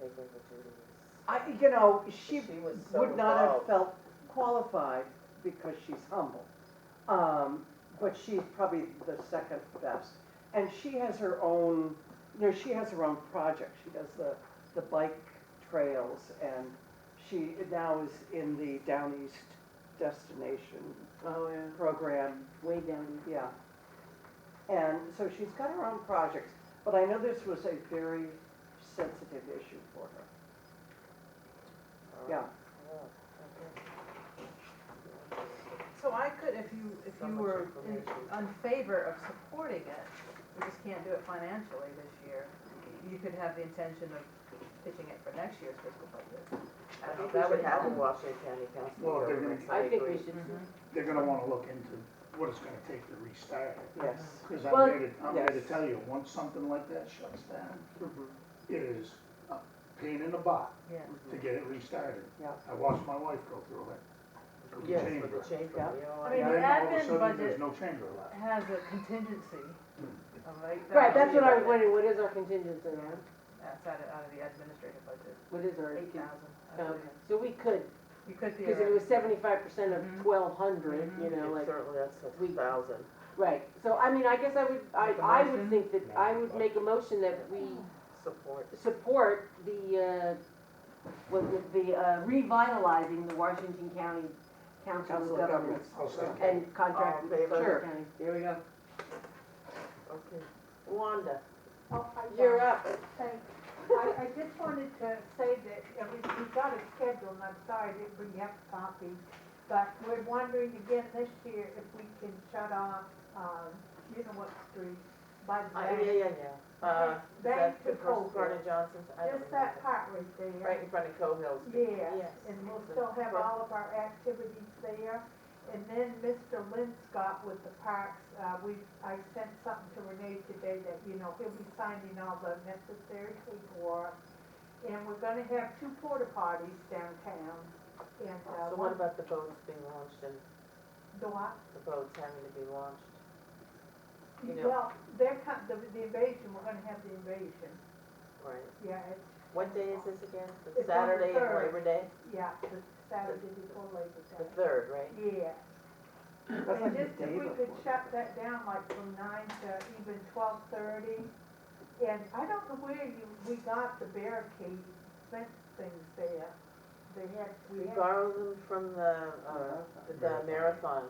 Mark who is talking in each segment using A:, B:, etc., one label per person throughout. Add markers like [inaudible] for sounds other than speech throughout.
A: think that Judy was,
B: I, you know, she
A: she was so
B: would not have
A: involved.
B: felt qualified because she's humble. Um, but she's probably the second best. And she has her own, you know, she has her own project. She does the, the bike trails and she now is in the Down East Destination
C: Oh, yeah.
B: program,
C: Way down.
B: yeah. And so she's got her own projects, but I know this was a very sensitive issue for her.
A: All right.
B: Yeah.
A: Yeah, okay.
D: So I could, if you, if
A: So
D: you
A: much
D: were in
A: information.
D: on favor of supporting it, we just can't do it financially this year. You could have the intention of pitching it for next year's fiscal budget. I
A: I
D: don't know
A: think
D: if
A: we should have a
D: that would Mm-hmm. happen.
A: Washington County Council.
E: Well, they're
A: meeting.
E: gonna-
C: I think we should,
E: They're gonna wanna look into what it's gonna take to restart it.
B: Yes.
E: Cause I'm
C: Well,
E: here to, I'm here to
B: yes.
E: tell you, once something like that shuts down,
A: Uh-huh.
B: Mm-hmm.
E: it is a pain in the butt
D: Yeah.
E: to get it restarted.
B: Yeah.
E: I watched my wife go through it. With the
A: Yes,
E: chamber.
A: with the chamber,
B: Yeah.
A: we all-
D: I
E: And
D: mean,
E: then
D: the
E: all of a
D: admin
E: sudden, there's
D: budget-
E: no chamber left.
D: Has a contingency, all right?
C: right, that's what I was
D: That-
C: wondering, what is our contingency on?
D: That's out of, out of the administrative budget,
C: What is our?
D: eight thousand, I
C: Um,
D: believe.
C: So we could,
D: You could
C: because if it was
D: theoretically.
C: seventy-five percent of
D: Mhm.
C: twelve hundred, you
A: It's
C: know, like,
A: Certainly, that's
C: we-
A: a thousand.
C: right. So I mean, I guess I would, I,
D: Make a
C: I would
D: motion?
C: think that, I would make a motion that we
A: Support.
C: support the, uh, was it the uh, revitalizing the Washington County Council of
B: Council of
C: Governments
E: I'll second it.
C: and contract
A: All in
C: with
A: favor?
C: Suffolk
B: Sure.
C: County. There we go.
A: Okay. Wanda,
F: Oh, hi, John.
C: You're up.
F: Thanks. I, I just wanted to say that, uh, we, we got a schedule, and I'm sorry that we have copies, but we're wondering again this year if we can shut off, um, you know what street, by the
A: Uh, yeah,
F: bank.
A: yeah, yeah. Uh, is
F: Bank
A: that
F: to
A: the first part
F: Cofield,
A: of Johnson's? I don't
F: just that
A: remember.
F: part right there.
A: Right in front of Cohills.
F: Yeah,
A: Yes.
F: and we'll still have all of our activities there. And then Mr. Lynn Scott with the parks, uh, we, I sent something to Renee today that, you know, he'll be signing all the necessary paperwork. And we're gonna have two porta potties downtown and,
A: So
F: uh,
A: what
F: one,
A: about the boats being launched and
F: the what?
A: the boats having to be launched? You know-
F: Well, they're com the, the invasion, we're gonna have the invasion,
A: Right.
F: yeah, it's,
A: What day is this again?
F: It's on
A: The
F: the
A: Saturday of
F: third.
A: Labor Day?
F: yeah, the Saturday before Labor
A: The
F: Day.
A: third, right?
F: Yeah.
B: That's
F: And
B: like the
F: just if
B: day
F: we could
B: before.
F: shut that down like from nine to even twelve thirty. And I don't know where you, we got the barricade fence things there. They had,
A: We
F: we had.
A: borrowed them from the, uh, the marathon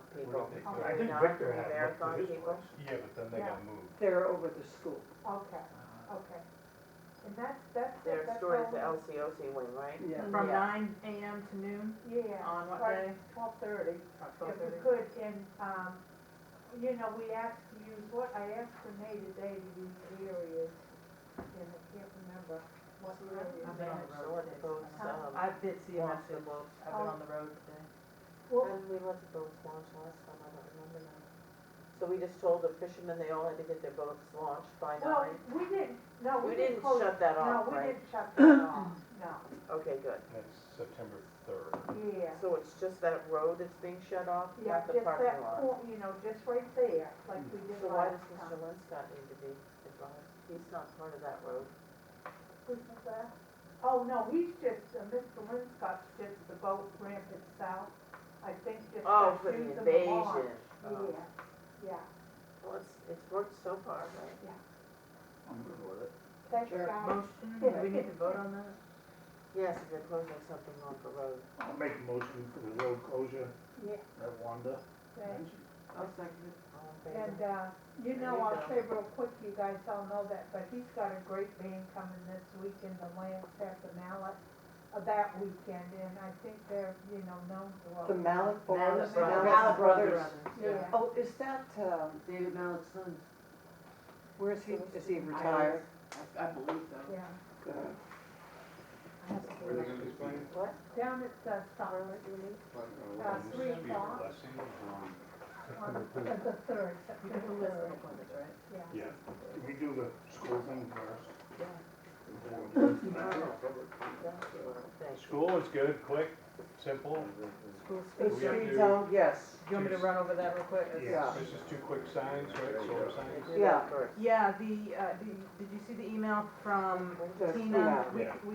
G: What
A: people.
G: did they
F: do?
G: I
F: Are
G: think
A: not
G: Victor
A: the
G: had it
A: marathon
G: for his
A: people?
G: place.
H: Yeah, but then they
F: Yeah.
H: got moved.
B: They're over the school.
F: Okay, okay. And that's, that's it,
A: Their
F: that's
A: store is
F: all
A: the
F: we-
A: LCOC wing, right?
B: Yeah.
D: From
A: Yeah.
D: nine AM to noon,
F: Yeah.
D: on what day?
F: Twelve thirty.
D: or
F: If we
D: 12:30?
F: could, and, um, you know, we asked to use, what, I asked Renee today to use areas, and I can't remember what areas.
D: I've been on the
A: So
D: road
A: let the
D: today.
A: boats, um,
D: I did see a
A: launch the
D: message,
A: boats.
D: I've been on the road today.
F: Well,
A: When did we let the boats launch last time? I don't remember now. So we just told the fishermen they all had to get their boats launched by
F: Well,
A: nine?
F: we didn't, no,
A: We
F: we
A: didn't
F: didn't close.
A: shut that
F: No,
A: off,
F: we
A: right?
F: didn't shut
A: [coughs]
F: that off, no,
A: Okay, good.
H: That's September third.
F: yeah.
A: So it's just that road that's being shut off,
F: Yeah,
A: not the
F: just that
A: parking lot?
F: point, you know, just right there, like we did
A: So why
F: last
A: does Mr.
F: time.
A: Linscott need to be advised? He's not part of that road.
F: Who's that? Oh, no, he's just, uh, Mr. Linscott's just the boat ramp itself, I think just.
A: Oh,
F: that
A: for the
F: using the lawn.
A: invasion. Oh.
F: Yeah, yeah,
A: Well, it's, it's worked so far, right?
E: I'm good with it.
F: thank
D: Sure.
F: God.
D: Motion, do we need to vote on that?
A: Yes, if they're closing something on the road.
E: I'll make a motion for the road closure
F: Yeah,
E: at Wanda.
F: thanks.
C: I'll second it.
A: All in favor?
F: And, uh, you
A: There
F: know,
A: you
F: I'll
A: go.
F: say real quick, you guys all know that, but he's got a great band coming this weekend, the Lance at the Mallet, uh, that weekend, and I think they're, you know, known well.
B: The Malik Brothers.
A: Brothers.
C: Mallet
B: Brothers.
F: Yeah.
B: Oh, is that, um,
C: David Mallett's son.
B: where is he, is he retired?
C: I- I believe so.
F: Yeah.
B: Good.
H: Where are they gonna be playing?
A: What?
F: Down at the Starlet, Uh,
H: Like,
F: three
H: uh, be a
F: o'clock.
H: blessing
E: um,
H: on-
F: on the the third,
D: You can
F: September
D: do list of
F: third,
D: appointments, right?
F: yeah.
H: Yeah.
E: Did we do the school thing first?
A: Thanks.
H: School is good, quick, simple.
D: School
B: The
H: We have
B: speed
H: to-
B: zone, yes,
D: Do you want me to run over that real quick? It's-
E: Yeah.
H: This is two quick signs, right, solar
A: They
H: signs?
A: do that
B: Yeah.
A: first.
D: Yeah, the, uh, did, did you see the email from
B: The
D: Tina?
B: Tina.
D: We-
H: Yeah.
D: we